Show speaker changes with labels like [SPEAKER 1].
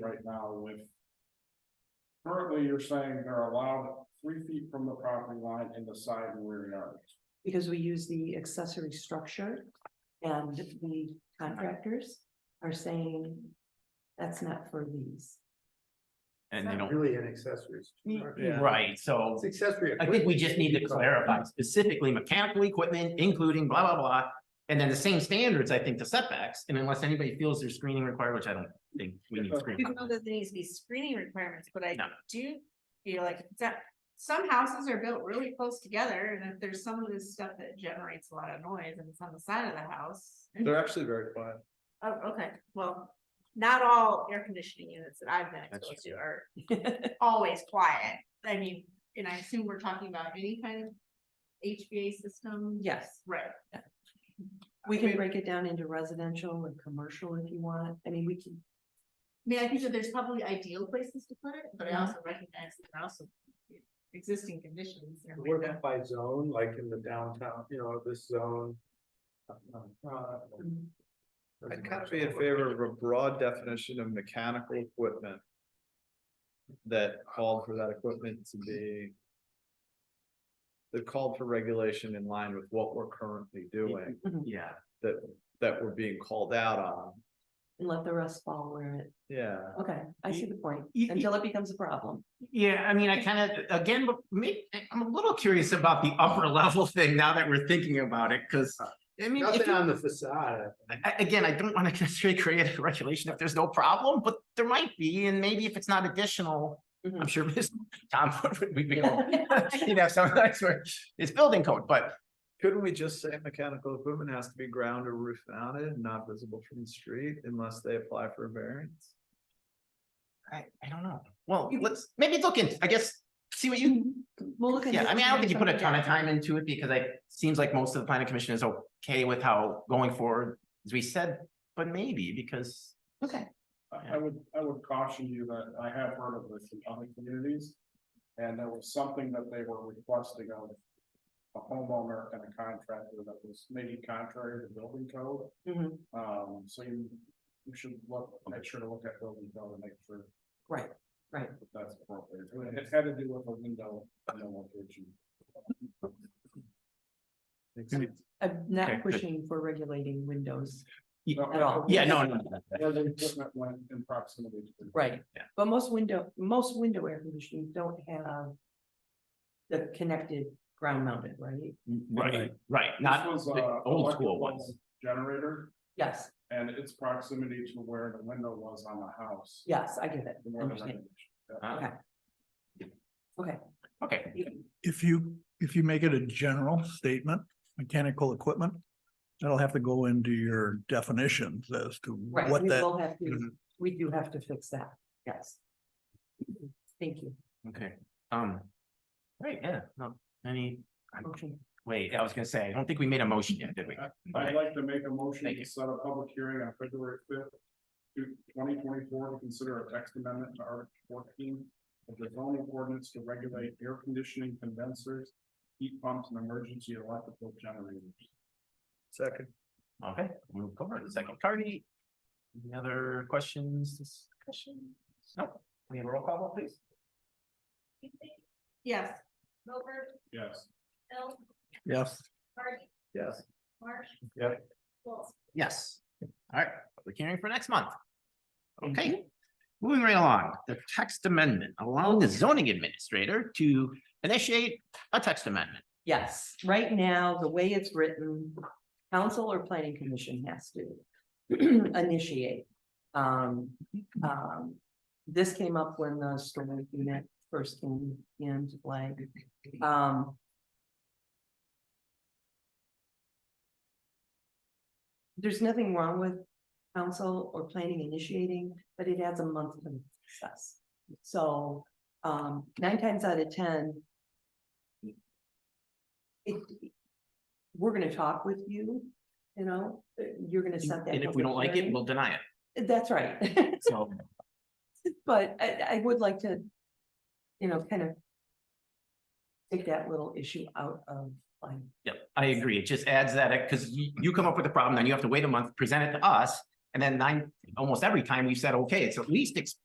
[SPEAKER 1] now with. Currently, you're saying they're allowed three feet from the property line in the side and rear yards.
[SPEAKER 2] because we use the accessory structure. And the contractors are saying that's not for these.
[SPEAKER 3] and they
[SPEAKER 4] Not
[SPEAKER 3] don't,
[SPEAKER 4] Really an accessory.
[SPEAKER 1] Yeah.
[SPEAKER 3] right, so.
[SPEAKER 4] It's accessory.
[SPEAKER 3] I think we
[SPEAKER 4] equipment.
[SPEAKER 3] just need to clarify specifically mechanical equipment, including blah, blah, blah. And then the same standards, I think, to setbacks, and unless anybody feels there's screening required, which I don't think we need
[SPEAKER 4] You
[SPEAKER 3] screening.
[SPEAKER 4] know that there needs to be screening requirements, but I
[SPEAKER 3] No.
[SPEAKER 4] do feel like it's that some houses are built really close together and if there's some of this stuff that generates a lot of noise and it's on the side of the house.
[SPEAKER 5] They're actually very quiet.
[SPEAKER 4] Oh, okay, well, not all air conditioning units that I've been
[SPEAKER 3] That's
[SPEAKER 4] exposed to are always quiet. I mean, and I assume we're talking about any kind of HVA system.
[SPEAKER 2] Yes,
[SPEAKER 4] Right.
[SPEAKER 2] we
[SPEAKER 4] Okay.
[SPEAKER 2] can break it down into residential and commercial if you want. I mean, we can,
[SPEAKER 4] I mean, I think that there's probably ideal places to put it, but I
[SPEAKER 2] Mhm.
[SPEAKER 4] also recognize that there are also existing conditions. and we
[SPEAKER 5] What
[SPEAKER 4] don't-
[SPEAKER 5] about by zone, like in the downtown, you know, this zone?
[SPEAKER 6] I'd kind of be in favor of a broad definition of mechanical equipment. That called for that equipment to be. That called for regulation in line with what we're currently doing,
[SPEAKER 3] Yeah,
[SPEAKER 6] that, that we're being called out on,
[SPEAKER 2] and let the rest fall where it,
[SPEAKER 6] yeah.
[SPEAKER 2] okay, I see the point,
[SPEAKER 3] Y- y-
[SPEAKER 2] until it becomes a problem.
[SPEAKER 3] yeah, I mean, I kind of, again, but me, I'm a little curious about the upper level thing now that we're thinking about it, because. I mean, if
[SPEAKER 5] Uh, Nothing
[SPEAKER 3] you-
[SPEAKER 5] on the facade.
[SPEAKER 3] I, again, I don't want to necessarily create a regulation if there's no problem, but there might be, and maybe if it's not additional. I'm
[SPEAKER 5] Mm-hmm.
[SPEAKER 2] Mhm.
[SPEAKER 3] sure Ms. Tom would, we'd be, all- you'd have some, that's where it's building code, but
[SPEAKER 6] Couldn't we just say mechanical equipment has to be ground or roof mounted and not visible from the street unless they apply for a variance?
[SPEAKER 3] I, I don't know. Well, let's, maybe look in, I guess, see what you,
[SPEAKER 2] We'll look.
[SPEAKER 3] yeah,
[SPEAKER 2] into
[SPEAKER 3] I mean, I don't think you put a ton
[SPEAKER 2] something
[SPEAKER 3] of time into it because I, seems like most of the planning commission is okay with how going forward, as we said, but maybe because.
[SPEAKER 2] down. Okay,
[SPEAKER 1] I I would, I would caution you that I have heard of this in other communities. And there was something that they were requesting of a homeowner and a contractor that was maybe contrary to building code.
[SPEAKER 2] Mhm.
[SPEAKER 1] Um, so you, you should look, make sure to look at building code and make sure
[SPEAKER 2] right, right.
[SPEAKER 1] that that's appropriate. And It had to do with a window, no location.
[SPEAKER 2] I'm
[SPEAKER 3] Okay,
[SPEAKER 2] not
[SPEAKER 3] good.
[SPEAKER 2] pushing for regulating windows.
[SPEAKER 1] At
[SPEAKER 2] At all.
[SPEAKER 3] Yeah, no, no, no, no.
[SPEAKER 1] uh, Where the equipment went in proximity to. the-
[SPEAKER 2] Right.
[SPEAKER 3] Yeah.
[SPEAKER 2] But most window, most window air conditioning don't have. The connected ground mounted, right?
[SPEAKER 3] right, right,
[SPEAKER 1] This
[SPEAKER 3] not
[SPEAKER 1] was uh,
[SPEAKER 3] the
[SPEAKER 1] a
[SPEAKER 3] old school
[SPEAKER 1] electrical
[SPEAKER 3] ones.
[SPEAKER 1] Generator
[SPEAKER 2] Yes,
[SPEAKER 1] and its proximity to where the window was on the house.
[SPEAKER 2] yes, I get it.
[SPEAKER 1] The more the
[SPEAKER 2] Understand. Uh,
[SPEAKER 1] better.
[SPEAKER 3] Ah,
[SPEAKER 2] Okay,
[SPEAKER 3] Okay,
[SPEAKER 7] if you, if you make it a general statement, mechanical equipment, that'll have to go into your definitions as to
[SPEAKER 2] right,
[SPEAKER 7] what
[SPEAKER 2] we
[SPEAKER 7] that,
[SPEAKER 2] will have to, we do have to fix that, yes. Thank you.
[SPEAKER 3] okay, um, right, yeah, no, any, I'm-
[SPEAKER 2] Motion.
[SPEAKER 3] wait, I was gonna say, I don't think we made a motion yet, did we?
[SPEAKER 1] Uh, I'd like to make a motion
[SPEAKER 3] Thank
[SPEAKER 1] to
[SPEAKER 3] you.
[SPEAKER 1] set a public hearing on February fifth, twenty twenty-four, to consider a text amendment to Article fourteen of the zoning ordinance to regulate air conditioning condensers, heat pumps, and emergency electrical generators.
[SPEAKER 5] Second.
[SPEAKER 3] Okay, move forward, second party. Any other questions, discussion? No, Can we have a roll call, vote, please?
[SPEAKER 4] Yes. Milford,
[SPEAKER 1] Yes.
[SPEAKER 4] Bill,
[SPEAKER 7] yes.
[SPEAKER 4] Hardy,
[SPEAKER 6] Yes.
[SPEAKER 4] Marsh.
[SPEAKER 6] Yep.
[SPEAKER 4] Well,
[SPEAKER 3] Yes. All right, public hearing for next month.
[SPEAKER 2] Thank
[SPEAKER 3] Okay, moving right along, the text amendment, allowing the zoning administrator to initiate a text amendment.
[SPEAKER 2] Yes, right now, the way it's written, council or planning commission has to initiate. Um,
[SPEAKER 3] Mm-hmm.
[SPEAKER 2] um, this came up when the storm unit first came into play. Um. There's nothing wrong with council or planning initiating, but it adds a month to the process. So, um, nine times out of ten, it, we're gonna talk with you, you know, you're gonna set that.
[SPEAKER 3] And if we don't
[SPEAKER 2] public
[SPEAKER 3] like it,
[SPEAKER 2] hearing.
[SPEAKER 3] we'll deny it.
[SPEAKER 2] That's right,
[SPEAKER 3] So,
[SPEAKER 2] but I, I would like to, you know, kind of take that little issue out of line.
[SPEAKER 3] yeah, I agree. It just adds that, because you, you come up with a problem, then you have to wait a month, present it to us. And then nine, almost every time we've said, okay, it's at least, it's